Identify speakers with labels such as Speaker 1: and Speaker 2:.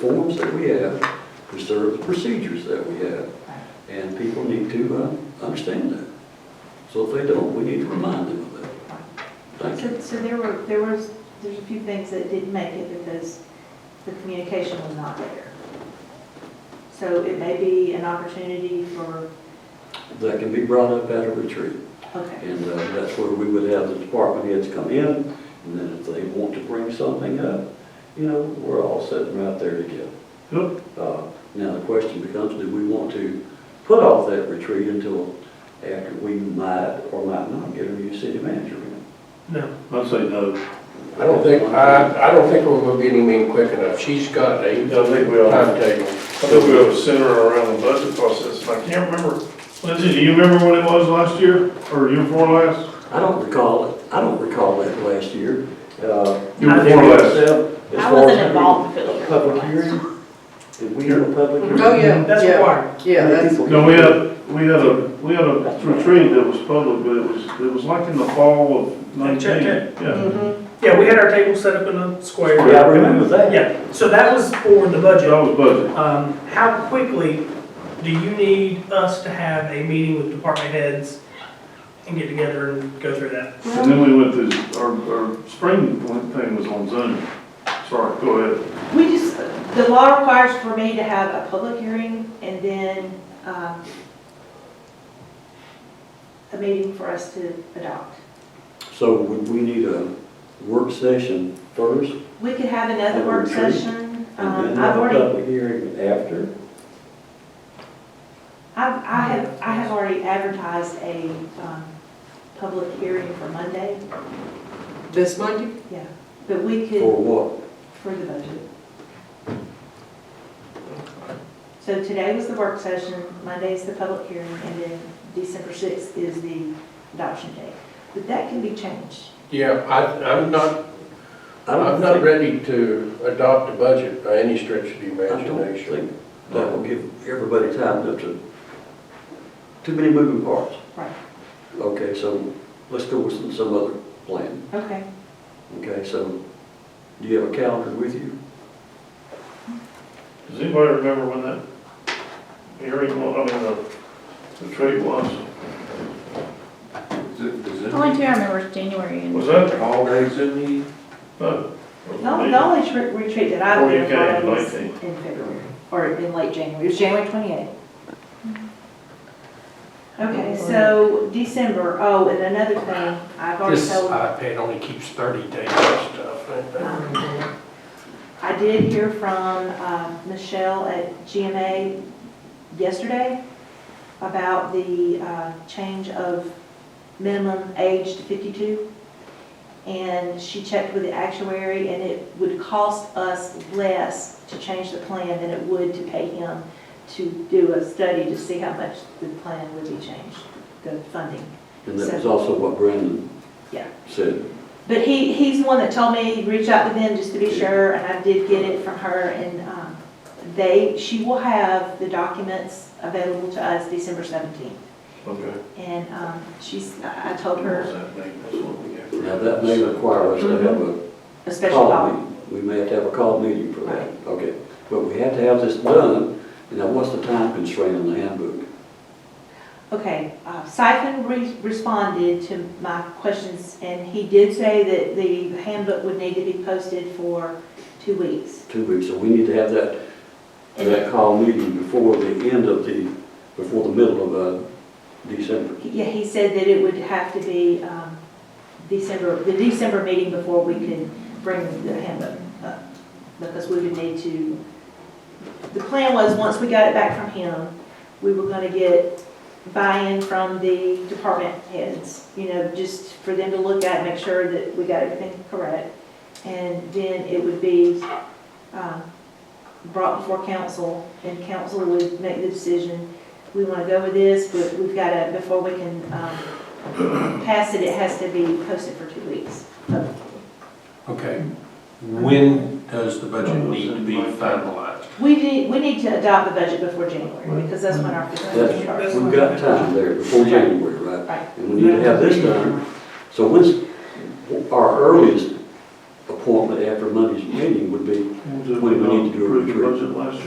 Speaker 1: forms that we have, preserve the procedures that we have, and people need to uh, understand that. So if they don't, we need to remind them of that. Thank you.
Speaker 2: So, so there were, there was, there's a few things that didn't make it because the communication was not there. So it may be an opportunity for,
Speaker 1: That can be brought up at a retreat,
Speaker 2: okay,
Speaker 1: and uh, that's where we would have the department heads come in, and then if they want to bring something up, you know, we're all sitting right there together.
Speaker 3: Yep.
Speaker 1: Uh, Now, the question becomes, do we want to put off that retreat until after we might or might not get a new city manager in?
Speaker 3: No. I'd say no.
Speaker 4: I don't think, I, I don't think we're gonna get him in quick enough. She's got a
Speaker 5: Yeah, I think we ought to,
Speaker 4: timetable.
Speaker 5: I think we ought to center around the budget process, and I can't remember,
Speaker 3: Lindsay, do you remember when it was last year, or year before last?
Speaker 1: I don't recall it, I don't recall that last year. Uh,
Speaker 5: You were
Speaker 1: I think
Speaker 5: more or less-
Speaker 1: myself, as
Speaker 2: I
Speaker 1: far as
Speaker 2: wasn't involved with
Speaker 1: a
Speaker 2: it.
Speaker 1: Public hearing, did we have a public hearing?
Speaker 6: Oh, yeah.
Speaker 7: That's
Speaker 6: yeah.
Speaker 7: required.
Speaker 6: Yeah, that's,
Speaker 3: No, we had, we had a, we had a retreat that was public, but it was, it was like in the fall of nineteen.
Speaker 7: Check Mm-hmm.
Speaker 3: Yeah.
Speaker 6: mhm.
Speaker 7: Yeah, we had our table set up in a square.
Speaker 1: Yeah, I remember that.
Speaker 7: Yeah, so that was for the
Speaker 3: That
Speaker 7: budget.
Speaker 3: was budget.
Speaker 7: Um, how quickly do you need us to have a meeting with department heads and get together and go through that?
Speaker 3: And then we went to, our, our spring one thing was on Zoom. Sorry, go ahead.
Speaker 2: we just, the law requires for me to have a public hearing and then, um, a meeting for us to adopt.
Speaker 1: So would we need a work session first,
Speaker 2: We could have another
Speaker 1: A
Speaker 2: work
Speaker 1: retreat,
Speaker 2: session.
Speaker 1: and then
Speaker 2: Um,
Speaker 1: have
Speaker 2: I've
Speaker 1: a
Speaker 2: already
Speaker 1: public hearing after?
Speaker 2: I've, I have, I have already advertised a, um, public hearing for Monday,
Speaker 6: This Monday?
Speaker 2: yeah, but we
Speaker 1: For
Speaker 2: could,
Speaker 1: what?
Speaker 2: for the budget. So today was the work session, Monday is the public hearing, and then December sixth is the adoption date. But that can be changed.
Speaker 4: Yeah, I, I'm not,
Speaker 1: I
Speaker 4: I'm
Speaker 1: don't
Speaker 4: not
Speaker 1: think,
Speaker 4: ready to adopt a budget by any stretch of the
Speaker 1: I don't
Speaker 4: imagination.
Speaker 1: think that will give everybody time to, to, too many moving parts.
Speaker 2: Right.
Speaker 1: Okay, so let's go with some, some other plan.
Speaker 2: Okay.
Speaker 1: Okay, so do you have a calendar with you?
Speaker 3: Does anybody remember when that hearing, wa- I mean, the retreat was?
Speaker 8: Only two I remember is January and.
Speaker 3: Was that?
Speaker 5: holidays in
Speaker 3: No.
Speaker 2: The only, the only tre- retreat that I've
Speaker 3: Or you
Speaker 2: been a part
Speaker 3: can,
Speaker 2: of was in
Speaker 3: like,
Speaker 2: February, or in late January, it was January twenty-eighth. Okay, so December, oh, and another thing, I've already
Speaker 4: This
Speaker 2: told,
Speaker 4: iPad only keeps thirty days of stuff.
Speaker 2: um, I did hear from, um, Michelle at GMA yesterday about the, uh, change of minimum age to fifty-two. And she checked with the actuary and it would cost us less to change the plan than it would to pay him to do a study to see how much the plan would be changed, the funding.
Speaker 1: And that was also what Brandon
Speaker 2: Yeah.
Speaker 1: said.
Speaker 2: But he, he's the one that told me, reach out to them just to be sure, and I did get it from her, and, um, they, she will have the documents available to us December seventeenth.
Speaker 3: Okay.
Speaker 2: And, um, she's, I I told
Speaker 3: What was
Speaker 2: her
Speaker 3: that name? That's what we got.
Speaker 1: Now, that may require us to have a
Speaker 2: a Mm-hmm. special
Speaker 1: call
Speaker 2: call.
Speaker 1: meeting. We may have to have a call meeting for that, okay? But we have to have this done, and now what's the time constraint on the handbook?
Speaker 2: Okay, uh, Siphon re- responded to my questions, and he did say that the handbook would need to be posted for two weeks.
Speaker 1: Two weeks, so we need to have that, that call meeting before the end of the, before the middle of, uh, December.
Speaker 2: Yeah, he said that it would have to be um, December, the December meeting before we could bring the handbook up, because we would need to, the plan was, once we got it back from him, we were gonna get buy-in from the department heads, you know, just for them to look at, make sure that we got everything correct. And then it would be um, brought before council, and council would make the decision we want to go with this, but we've got to, before we can um, pass it, it has to be posted for two weeks.
Speaker 4: Okay, when does the budget need to be finalized?
Speaker 2: We need, we need to adopt the budget before January, because that's when our fiscal year
Speaker 1: That's,
Speaker 2: starts.
Speaker 1: we've got time there before January, right?
Speaker 2: Right.
Speaker 1: And we need to have this done. So when's our earliest appointment after Monday's meeting would be
Speaker 3: We'll do-
Speaker 1: We- we need to do a
Speaker 3: Approve the
Speaker 1: retreat.
Speaker 3: budget last year.